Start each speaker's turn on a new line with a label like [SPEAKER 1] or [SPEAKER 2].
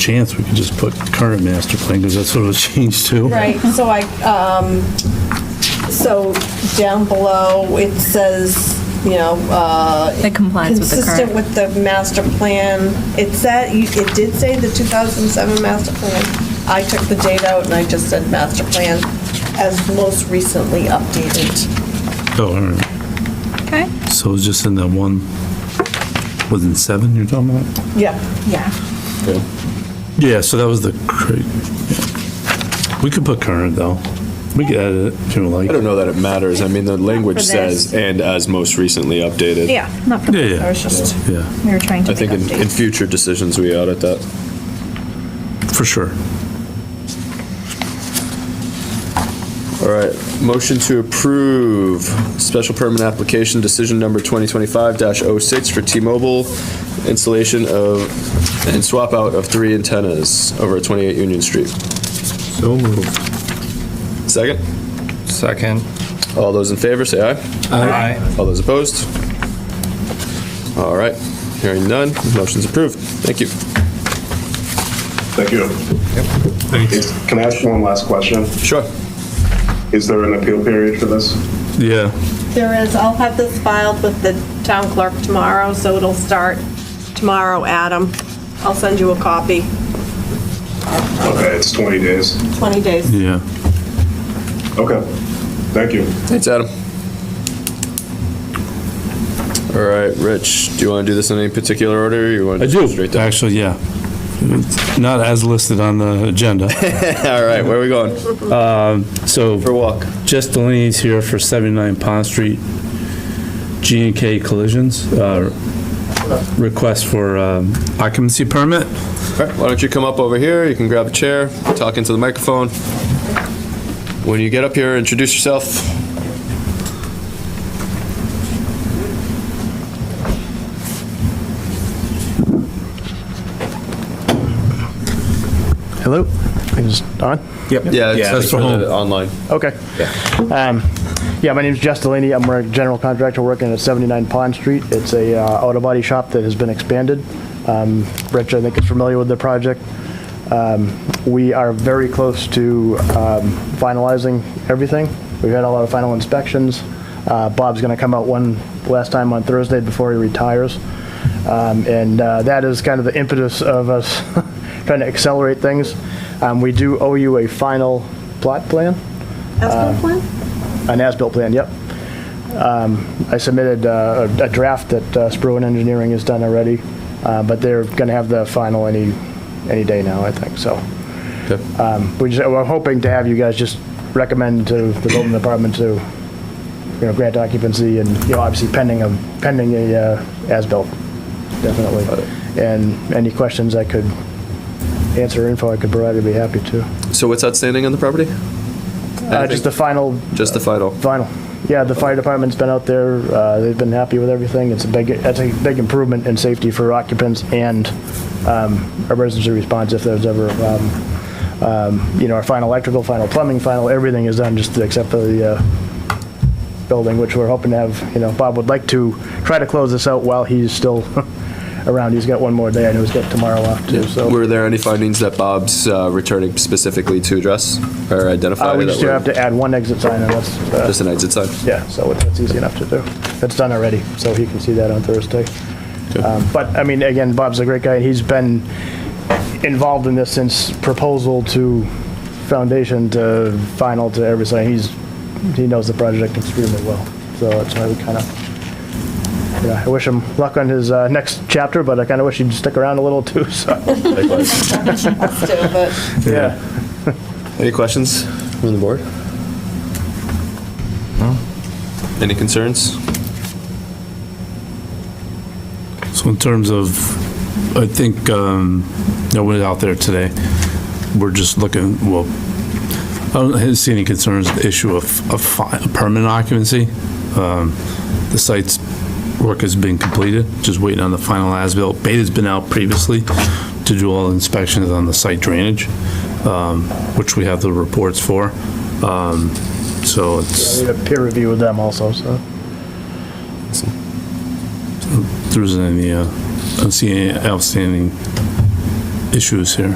[SPEAKER 1] chance, we could just put current master plan, because that's what it was changed to.
[SPEAKER 2] Right, so I, um, so down below, it says, you know, uh,
[SPEAKER 3] It complies with the
[SPEAKER 2] consistent
[SPEAKER 3] current.
[SPEAKER 2] with the master plan. It said, you- it did say the 2007 master plan. I took the date out and I just said master plan as most recently updated.
[SPEAKER 1] Oh, all right.
[SPEAKER 3] Okay.
[SPEAKER 1] So it was just in that one, was it seven you're talking about?
[SPEAKER 2] Yeah.
[SPEAKER 3] Yeah.
[SPEAKER 1] Yeah, so that was the, cra- yeah. we could put current, though. We could add it if you like.
[SPEAKER 4] I don't know that it matters. I mean, the language
[SPEAKER 3] this.
[SPEAKER 4] says, and as most recently updated.
[SPEAKER 3] Yeah, not for,
[SPEAKER 1] Yeah,
[SPEAKER 2] I
[SPEAKER 1] yeah,
[SPEAKER 2] was just,
[SPEAKER 1] yeah,
[SPEAKER 3] we were trying to
[SPEAKER 4] I
[SPEAKER 3] make
[SPEAKER 4] think in, in
[SPEAKER 3] updates.
[SPEAKER 4] future decisions, we audit that.
[SPEAKER 1] for sure.
[SPEAKER 4] All right, motion to approve special permit application decision number 2025-06 for T-Mobile installation of and swap out of three antennas over at 28 Union Street.
[SPEAKER 1] So moved.
[SPEAKER 4] Second,
[SPEAKER 5] Second.
[SPEAKER 4] all those in favor, say aye.
[SPEAKER 5] Aye.
[SPEAKER 4] All those opposed? All right, hearing none, motion's approved. Thank you.
[SPEAKER 6] Thank you. Is- Can I ask one last question?
[SPEAKER 4] Sure.
[SPEAKER 6] Is there an appeal period for this?
[SPEAKER 1] Yeah,
[SPEAKER 2] there is, I'll have this filed with the town clerk tomorrow, so it'll start tomorrow, Adam. I'll send you a copy,
[SPEAKER 6] Okay, Uh, it's 20 days.
[SPEAKER 2] 20 days.
[SPEAKER 1] yeah.
[SPEAKER 6] Okay, thank you.
[SPEAKER 4] Thanks, Adam. All right, Rich, do you want to do this in any particular order? or You want
[SPEAKER 1] I
[SPEAKER 4] to
[SPEAKER 1] do,
[SPEAKER 4] Straight down.
[SPEAKER 1] actually, yeah. It's Not as listed on the agenda.
[SPEAKER 4] All right, where are we going?
[SPEAKER 1] So
[SPEAKER 4] For a walk.
[SPEAKER 1] Just Delaney's here for 79 Pond Street, G and K Collisions, uh, request for um, occupancy permit.
[SPEAKER 4] All right, why don't you come up over here? You can grab a chair, talk into the microphone. When you get up here, introduce yourself.
[SPEAKER 7] Hello? Is it on?
[SPEAKER 4] Yeah, it's-
[SPEAKER 1] That's for home.
[SPEAKER 4] Online.
[SPEAKER 7] Okay. Um, Yeah, my name's Jess Delaney. I'm a general contractor working at 79 Pond Street. It's a uh, auto body shop that has been expanded. Um, Rich, I think, is familiar with the project. Um, We are very close to um, finalizing everything. We've had a lot of final inspections. Uh, Bob's going to come out one last time on Thursday before he retires. Um, And uh, that is kind of the impetus of us trying to accelerate things. Um, We do owe you a final plot plan.
[SPEAKER 2] Aspen plan?
[SPEAKER 7] An as-built plan, yep. Um, I submitted uh, a a draft that uh, Spruan Engineering has done already, uh, but they're going to have the final any, any day now, I think, so. Um, We just, we're hoping to have you guys just recommend to the building department to, you know, grant occupancy and, you know, obviously pending a, pending a uh, as-built, definitely. And any questions I could answer, or info I could provide, I'd be happy to.
[SPEAKER 4] So what's outstanding on the property?
[SPEAKER 7] Uh, Just the final
[SPEAKER 4] Just the final.
[SPEAKER 7] Vinyl. Yeah, the fire department's been out there. uh, They've been happy with everything. It's a big, that's a big improvement in safety for occupants and um, emergency response if there's ever, um, um, you know, our final electrical, final plumbing, final, everything is done just except for the uh, building, which we're hoping to have, you know, Bob would like to try to close this out while he's still around. He's got one more day. I know he's got tomorrow off too, so.
[SPEAKER 4] Were there any findings that Bob's uh, returning specifically to address or identify?
[SPEAKER 7] Uh, We
[SPEAKER 4] that
[SPEAKER 7] just do
[SPEAKER 4] were-
[SPEAKER 7] have to add one exit sign and that's. uh,
[SPEAKER 4] Just an exit sign?
[SPEAKER 7] Yeah, so it's easy enough to do. It's done already, so he can see that on Thursday. Um, But, I mean, again, Bob's a great guy. He's been involved in this since proposal to foundation to final to everything. He's, he knows the project extremely well. So that's why we kind of, you know, I wish him luck on his uh, next chapter, but I kind of wish he'd stick around a little too, so.
[SPEAKER 4] Likewise.
[SPEAKER 2] Still, but.
[SPEAKER 7] Yeah.
[SPEAKER 4] Any questions from the board? Any concerns?
[SPEAKER 1] So in terms of, I think, um, I went out there today, we're just looking, well, I don't see any concerns, with the issue of, of fi- permanent occupancy. Um, The site's work has been completed, just waiting on the final as-built. Beta's been out previously to do all inspections on the site drainage, um, which we have the reports for. Um, So it's,
[SPEAKER 7] We had a peer review with them also, so.
[SPEAKER 1] there isn't any, uh, I don't see any outstanding issues here.